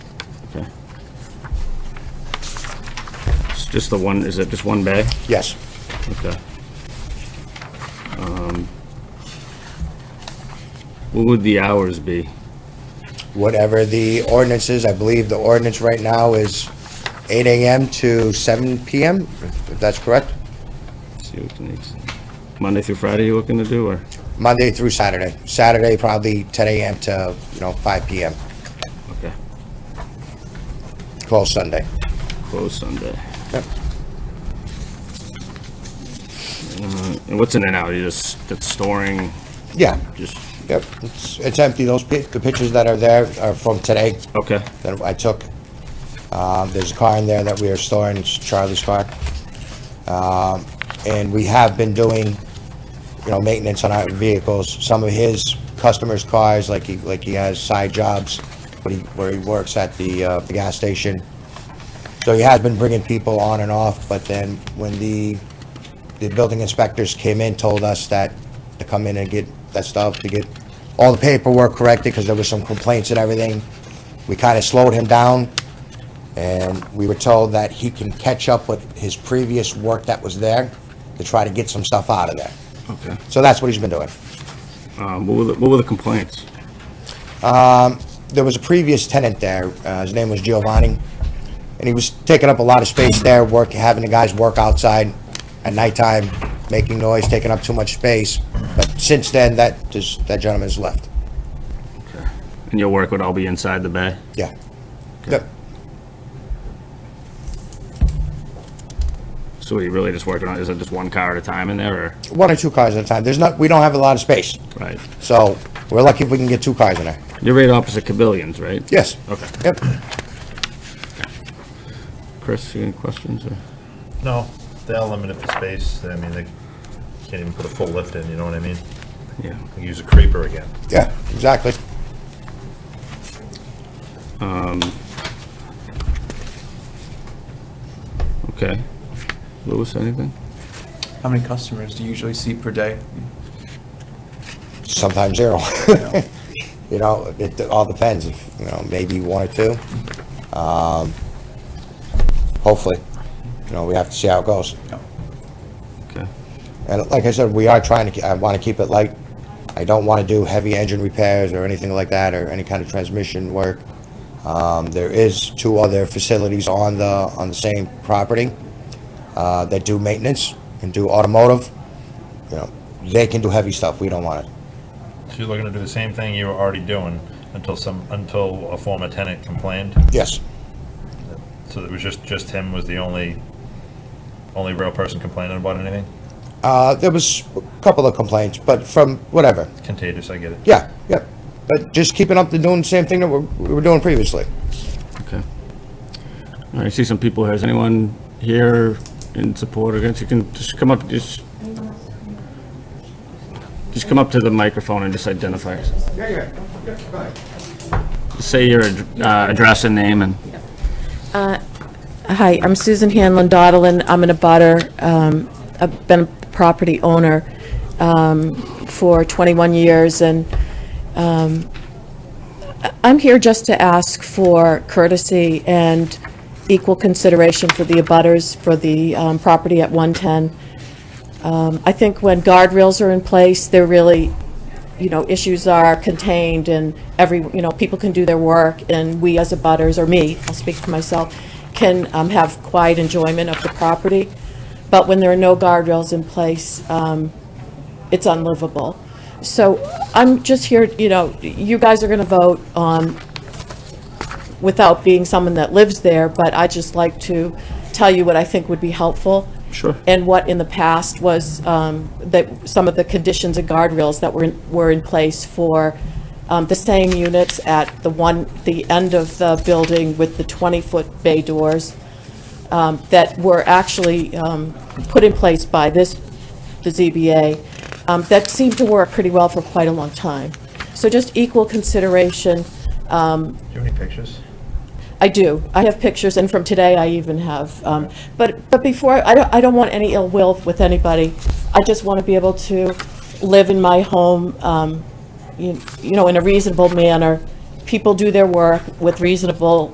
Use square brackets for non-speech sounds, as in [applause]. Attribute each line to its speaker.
Speaker 1: Okay. It's just the one, is it just one bag?
Speaker 2: Yes.
Speaker 1: Okay. Um, What would the hours be?
Speaker 2: Whatever the ordinance is, I believe the ordinance right now is 8 AM to 7 PM, if if that's correct?
Speaker 1: See what the next- Monday through Friday you looking to do, or?
Speaker 2: Monday through Saturday. Saturday probably 10 AM to, you know, 5 PM,
Speaker 1: Okay,
Speaker 2: close Sunday.
Speaker 1: close Sunday.
Speaker 2: Yep.
Speaker 1: Uh, And what's in and out? You just, that's storing,
Speaker 2: Yeah,
Speaker 1: just,
Speaker 2: yep, it's it's empty. Those, pi- the pictures that are there are from today
Speaker 1: okay,
Speaker 2: that I took. Uh, There's a car in there that we are storing, it's Charlie's car. Um, And we have been doing, you know, maintenance on our vehicles. Some of his customers' cars, like he, like he has side jobs, but he, where he works at the, uh, the gas station. So he has been bringing people on and off, but then when the, the building inspectors came in, told us that to come in and get that stuff, to get all the paperwork corrected, because there was some complaints and everything. We kind of slowed him down, and we were told that he can catch up with his previous work that was there to try to get some stuff out of there.
Speaker 1: okay.
Speaker 2: So that's what he's been doing.
Speaker 1: Um, What were, the- what were the complaints?
Speaker 2: There was a previous tenant there, uh, his name was Giovanni, and he was taking up a lot of space there, work, having the guys work outside at nighttime, making noise, taking up too much space. But since then, that, just- that gentleman's left.
Speaker 1: And your work would all be inside the bay?
Speaker 2: Yeah. Yep.
Speaker 1: So are you really just working on, is it just one car at a time in there, or?
Speaker 2: One or two cars at a time. There's not, we don't have a lot of space,
Speaker 1: Right.
Speaker 2: so we're lucky if we can get two cars in there.
Speaker 1: You're right opposite Cabillions, right?
Speaker 2: Yes.
Speaker 1: Okay.
Speaker 2: Yep.
Speaker 1: Chris, you any questions, or?
Speaker 3: No, they are limited for space. I mean, they can't even put a full lift in, you know what I mean?
Speaker 1: Yeah.
Speaker 3: Use a creeper again.
Speaker 2: Yeah, exactly.
Speaker 1: Okay. Louis, anything?
Speaker 4: How many customers do you usually see per day?
Speaker 2: Sometimes zero. [laughs] You know, it all depends, if, you know, maybe one or two. Um, Hopefully, you know, we have to see how it goes.
Speaker 1: Okay.
Speaker 2: And like I said, we are trying to, ke- I want to keep it light. I don't want to do heavy engine repairs or anything like that, or any kind of transmission work. Um, There is two other facilities on the, on the same property uh, that do maintenance and do automotive. You know, they can do heavy stuff, we don't want it.
Speaker 3: So you're looking to do the same thing you were already doing until some, until a former tenant complained?
Speaker 2: Yes,
Speaker 3: So it was just, just him was the only, only real person complaining about anything?
Speaker 2: Uh, there was a couple of complaints, but from whatever,
Speaker 3: Contagious, I get it.
Speaker 2: yeah, yeah. But just keeping up to doing the same thing that we're- we were doing previously.
Speaker 1: Okay. All right, I see some people here. Is anyone here in support or against? You can just come up, just, just come up to the microphone and just identify yourself.
Speaker 2: Yeah, yeah,
Speaker 1: Just Say your ad- uh, address and name and,
Speaker 5: Hi, I'm Susan Hanlon Dottlin. I'm an abutter. um, I've been a property owner um, for 21 years, and um, I- I'm here just to ask for courtesy and equal consideration for the abutters for the um, property at 110. Um, I think when guardrails are in place, they're really, you know, issues are contained and every, you know, people can do their work and we as a butters, or me, I'll speak for myself, can um, have quiet enjoyment of the property. But when there are no guardrails in place, um, it's unlivable. So I'm just here, you know, you guys are going to vote on, without being someone that lives there, but I just like to tell you what I think would be helpful.
Speaker 1: Sure.
Speaker 5: And what in the past was um, that some of the conditions and guardrails that were, in- were in place for um, the same units at the one, the end of the building with the 20-foot bay doors um, that were actually um, put in place by this, the ZBA, um, that seemed to work pretty well for quite a long time. So just equal consideration.
Speaker 3: Do you have any pictures?
Speaker 5: I do. I have pictures, and from today I even have. um, But, but before, I don't, I don't want any ill will with anybody. I just want to be able to live in my home, um, you you know, in a reasonable manner. People do their work with reasonable